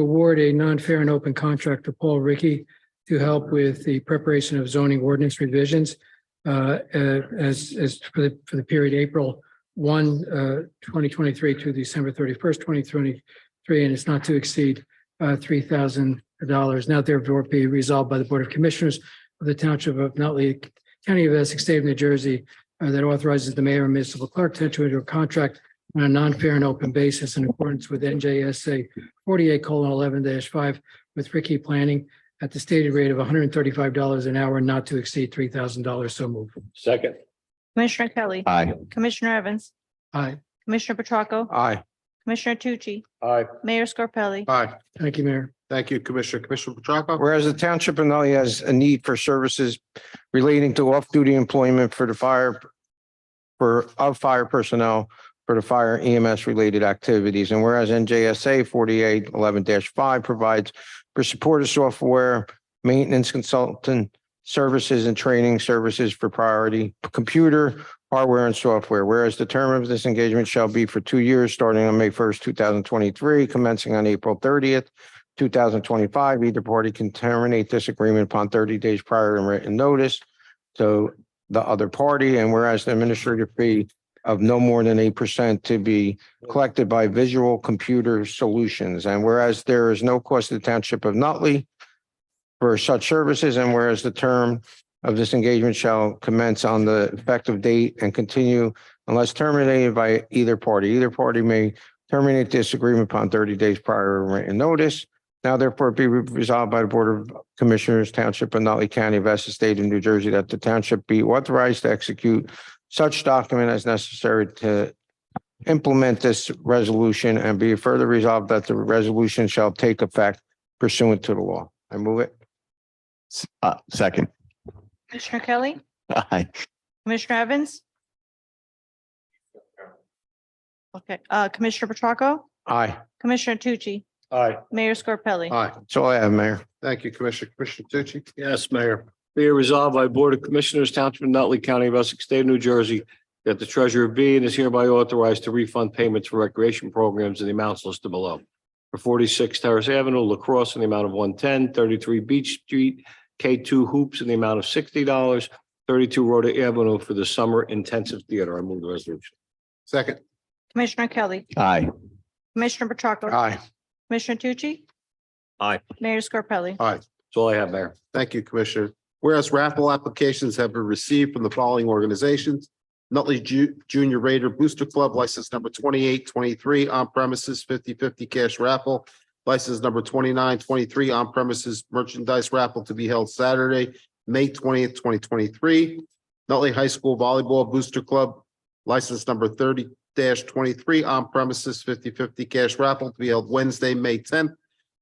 award a non-fair and open contract to Paul Ricky to help with the preparation of zoning ordinance revisions uh, uh, as, as for the, for the period April 1, uh, 2023 to December 31st, 2023, and it's not to exceed uh, $3,000. Now therefore be resolved by the Board of Commissioners of the Township of Nutley County of Essex, State of New Jersey, uh, that authorizes the mayor and municipal clerk to enter into a contract on a non-fair and open basis in accordance with NJSA forty-eight eleven five with Ricky Planning at the stated rate of hundred and thirty-five dollars an hour, not to exceed three thousand dollars. So move. Second. Commissioner Kelly. Aye. Commissioner Evans. Aye. Commissioner Petracca. Aye. Commissioner Tucci. Aye. Mayor Scarpelli. Aye. Thank you, Mayor. Thank you, Commissioner. Commissioner Petracca? Whereas the Township of Nutley has a need for services relating to off-duty employment for the fire for of fire personnel for the fire EMS related activities. And whereas NJSA forty-eight eleven five provides for supportive software, maintenance consultant services and training services for priority computer, hardware and software. Whereas the term of this engagement shall be for two years, starting on May first, two thousand twenty-three, commencing on April thirtieth, two thousand twenty-five. Either party can terminate this agreement upon thirty days prior and written notice to the other party. And whereas the administrative fee of no more than eight percent to be collected by Visual Computer Solutions. And whereas there is no cost to the Township of Nutley for such services, and whereas the term of this engagement shall commence on the effective date and continue unless terminated by either party. Either party may terminate this agreement upon thirty days prior written notice. Now therefore be resolved by the Board of Commissioners Township of Nutley County of Essex State of New Jersey that the township be authorized to execute such document as necessary to implement this resolution and be further resolved that the resolution shall take effect pursuant to the law. I move it. S- Uh, second. Commissioner Kelly. Aye. Commissioner Evans. Okay, uh, Commissioner Petracca. Aye. Commissioner Tucci. Aye. Mayor Scarpelli. Aye. That's all I have, Mayor. Thank you, Commissioner. Commissioner Tucci? Yes, Mayor. Be it resolved by Board of Commissioners Township of Nutley County of Essex State of New Jersey that the treasurer be and is hereby authorized to refund payments for recreation programs in the amounts listed below. For forty-six Terrace Avenue, lacrosse in the amount of 110, 33 Beach Street, K two hoops in the amount of sixty dollars, thirty-two Rhoda Avenue for the summer intensive theater. I move the resolution. Second. Commissioner Kelly. Aye. Commissioner Petracca. Aye. Commissioner Tucci. Aye. Mayor Scarpelli. That's all I have, Mayor. Thank you, Commissioner. Whereas raffle applications have been received from the following organizations. Nutley Ju- Junior Raider Booster Club, license number twenty-eight twenty-three, on premises 50-50 cash raffle. License number twenty-nine twenty-three, on premises merchandise raffle to be held Saturday, May twentieth, twenty twenty-three. Nutley High School Volleyball Booster Club, license number thirty twenty-three, on premises 50-50 cash raffle to be held Wednesday, May tenth,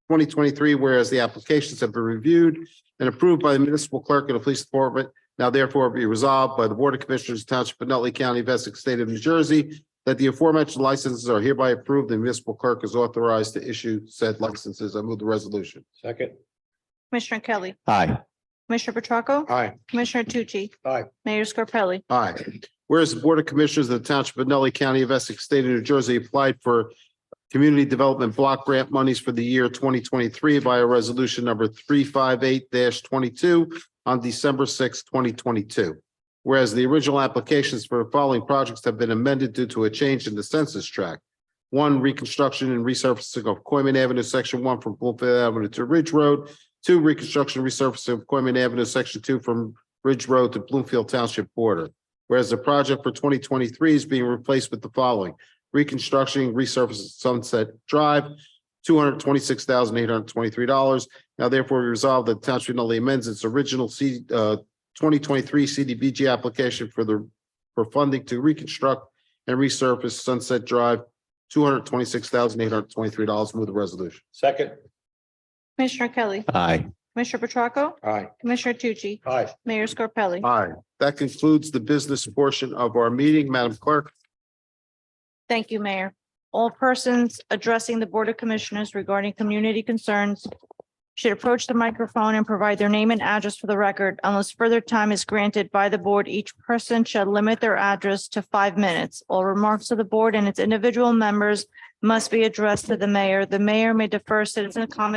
twenty twenty-three. Whereas the applications have been reviewed and approved by the municipal clerk of the police department. Now therefore be resolved by the Board of Commissioners of the Township of Nutley County, of Essex State of New Jersey, that the aforementioned licenses are hereby approved and municipal clerk is authorized to issue said licenses. I move the resolution. Second. Commissioner Kelly. Aye. Commissioner Petracca. Aye. Commissioner Tucci. Aye. Mayor Scarpelli. Aye. Whereas the Board of Commissioners of the Township of Nutley County of Essex State of New Jersey applied for Community Development Block Grant monies for the year twenty twenty-three via resolution number three five eight twenty-two on December sixth, twenty twenty-two. Whereas the original applications for the following projects have been amended due to a change in the census tract. One, reconstruction and resurfacing of Coiman Avenue, section one from Bloomfield Avenue to Ridge Road. Two, reconstruction and resurfacing of Coiman Avenue, section two from Ridge Road to Bloomfield Township border. Whereas the project for twenty twenty-three is being replaced with the following, reconstructing resurfacing Sunset Drive, two hundred twenty-six thousand eight hundred twenty-three dollars. Now therefore we resolve that the Township of Nutley amends its original C, uh, twenty twenty-three CDBG application for the, for funding to reconstruct and resurface Sunset Drive, two hundred twenty-six thousand eight hundred twenty-three dollars. Move the resolution. Second. Commissioner Kelly. Aye. Commissioner Petracca. Aye. Commissioner Tucci. Aye. Mayor Scarpelli. Aye. That concludes the business portion of our meeting. Madam Clerk. Thank you, Mayor. All persons addressing the Board of Commissioners regarding community concerns should approach the microphone and provide their name and address for the record. Unless further time is granted by the board, each person shall limit their address to five minutes. All remarks to the board and its individual members must be addressed to the mayor. The mayor may defer citizen comments